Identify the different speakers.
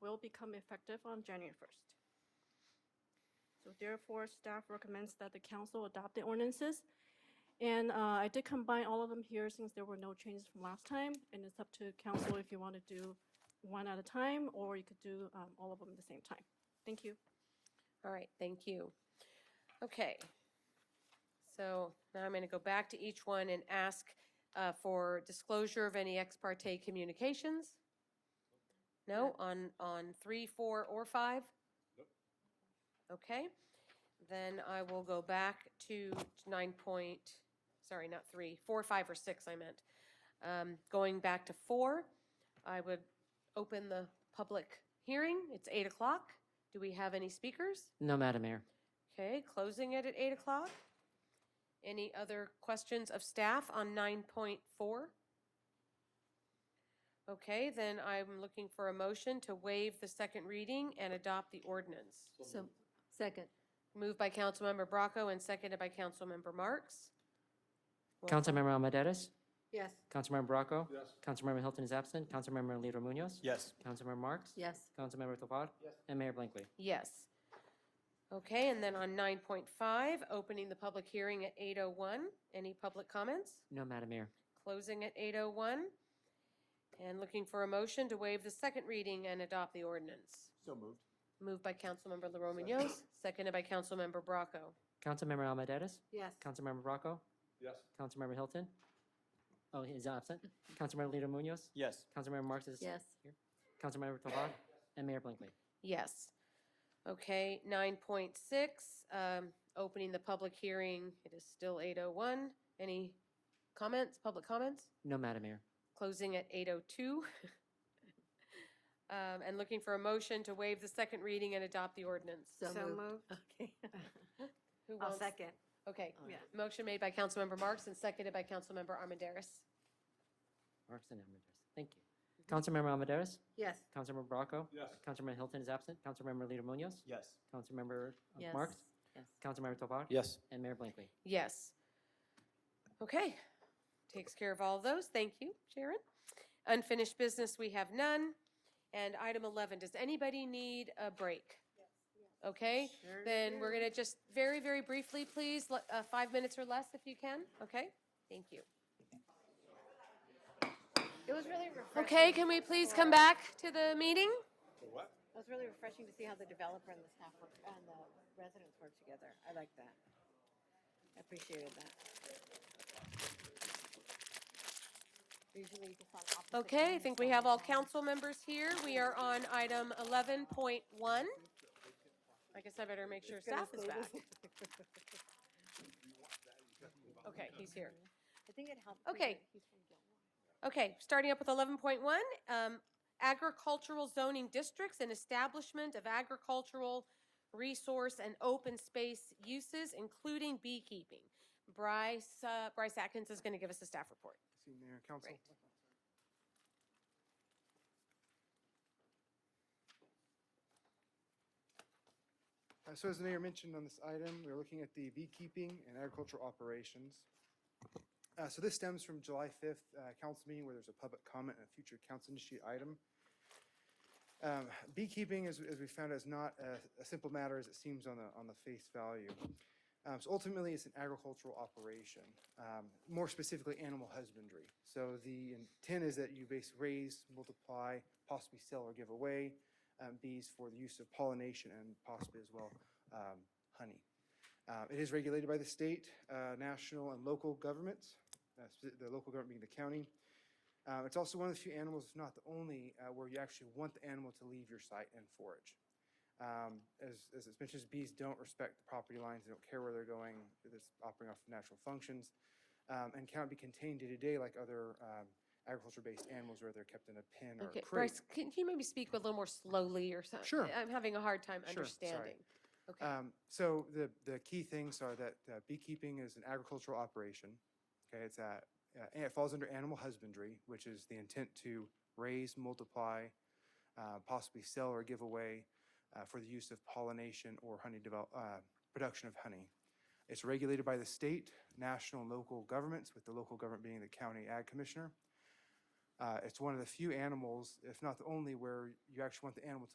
Speaker 1: will become effective on January 1st. So therefore, staff recommends that the council adopt the ordinances. And uh, I did combine all of them here since there were no changes from last time, and it's up to council if you want to do one at a time, or you could do um, all of them at the same time. Thank you.
Speaker 2: All right, thank you. Okay. So now I'm going to go back to each one and ask uh, for disclosure of any ex parte communications? No, on, on three, four, or five? Okay, then I will go back to nine point, sorry, not three, four, five, or six, I meant. Um, Going back to four, I would open the public hearing. It's eight o'clock. Do we have any speakers?
Speaker 3: No, Madam Mayor.
Speaker 2: Okay, closing it at 8 o'clock. Any other questions of staff on 9.4? Okay, then I'm looking for a motion to waive the second reading and adopt the ordinance.
Speaker 4: So, second.
Speaker 2: Moved by Councilmember Bracco and seconded by Councilmember Marks.
Speaker 3: Councilmember Almadetis?
Speaker 4: Yes.
Speaker 3: Councilmember Bracco? Yes. Councilmember Hilton is absent. Councilmember Leader Munoz?
Speaker 5: Yes.
Speaker 3: Councilmember Marks?
Speaker 4: Yes.
Speaker 3: Councilmember Tovar? Yes. And Mayor Blankley.
Speaker 2: Yes. Okay, and then on 9.5, opening the public hearing at 8:01. Any public comments?
Speaker 3: No, Madam Mayor.
Speaker 2: Closing at 8:01. And looking for a motion to waive the second reading and adopt the ordinance.
Speaker 5: So moved.
Speaker 2: Moved by Councilmember Leroy Munoz, seconded by Councilmember Bracco.
Speaker 3: Councilmember Almadetis?
Speaker 4: Yes.
Speaker 3: Councilmember Bracco?
Speaker 5: Yes.
Speaker 3: Councilmember Hilton? Oh, he's absent. Councilmember Leader Munoz?
Speaker 5: Yes.
Speaker 3: Councilmember Marks is
Speaker 4: Yes.
Speaker 3: here. Councilmember Tovar? And Mayor Blankley.
Speaker 2: Yes. Okay, 9.6, um, opening the public hearing. It is still 8:01. Any comments, public comments?
Speaker 3: No, Madam Mayor.
Speaker 2: Closing at 8:02. Um, And looking for a motion to waive the second reading and adopt the ordinance.
Speaker 4: So moved.
Speaker 1: Okay.
Speaker 2: Who wants? Okay. Motion made by Councilmember Marks and seconded by Councilmember Armandaris.
Speaker 3: Marks and Almadetis. Thank you. Councilmember Almadetis?
Speaker 4: Yes.
Speaker 3: Councilmember Bracco?
Speaker 5: Yes.
Speaker 3: Councilmember Hilton is absent. Councilmember Leader Munoz?
Speaker 5: Yes.
Speaker 3: Councilmember uh,
Speaker 4: Yes.
Speaker 3: Marks?
Speaker 4: Yes.
Speaker 3: Councilmember Tovar?
Speaker 5: Yes.
Speaker 3: And Mayor Blankley.
Speaker 2: Yes. Okay. Takes care of all of those. Thank you, Sharon. Unfinished business, we have none. And item 11, does anybody need a break? Okay, then we're going to just very, very briefly, please, le- uh, five minutes or less if you can, okay? Thank you.
Speaker 6: It was really refreshing.
Speaker 2: Okay, can we please come back to the meeting?
Speaker 5: What?
Speaker 6: It was really refreshing to see how the developer and the staff work, and the residents work together. I like that. I appreciated that. Usually you just on opposite
Speaker 2: Okay, I
Speaker 6: ends,
Speaker 2: think we
Speaker 6: so
Speaker 2: have all
Speaker 6: it's-
Speaker 2: council members here. We are on item 11.1. I guess I better make sure staff is back. Okay, he's here.
Speaker 6: I think it helped.
Speaker 2: Okay.
Speaker 6: He's from Gilmore.
Speaker 2: Okay, starting up with 11.1, um, agricultural zoning districts and establishment of agricultural resource and open space uses, including beekeeping. Bryce, uh, Bryce Atkins is going to give us a staff report.
Speaker 7: See, Mayor and Council.
Speaker 2: Right.
Speaker 7: Uh, So as the mayor mentioned on this item, we're looking at the beekeeping and agricultural operations. Uh, So this stems from July 5th uh, council meeting where there's a public comment and a future council initiated item. Um, Beekeeping, as, as we found, is not a, a simple matter as it seems on the, on the face value. Um, So ultimately, it's an agricultural operation, um, more specifically, animal husbandry. So the intent is that you basically raise, multiply, possibly sell or give away um, bees for the use of pollination and possibly as well um, honey. Uh, It is regulated by the state, uh, national, and local governments, uh, spe- the local government being the county. Uh, It's also one of the few animals, if not the only, uh, where you actually want the animal to leave your site and forage. Um, As, as it's mentioned, bees don't respect the property lines, they don't care where they're going, they're just operating off of natural functions, um, and cannot be contained day-to-day like other um, agriculture-based animals where they're kept in a pen or a
Speaker 2: Okay,
Speaker 7: crate.
Speaker 2: Bryce, can you maybe speak a little more slowly or something?
Speaker 7: Sure.
Speaker 2: I'm having a hard time
Speaker 7: Sure, sorry.
Speaker 2: understanding. Okay,
Speaker 7: Um, so the, the key things are that uh, beekeeping is an agricultural operation. Okay, it's a, uh, and it falls under animal husbandry, which is the intent to raise, multiply, uh, possibly sell or give away uh, for the use of pollination or honey develop, uh, production of honey. It's regulated by the state, national, and local governments, with the local government being the county ag commissioner. Uh, it's one of the few animals, if not the only, where you actually want the animal to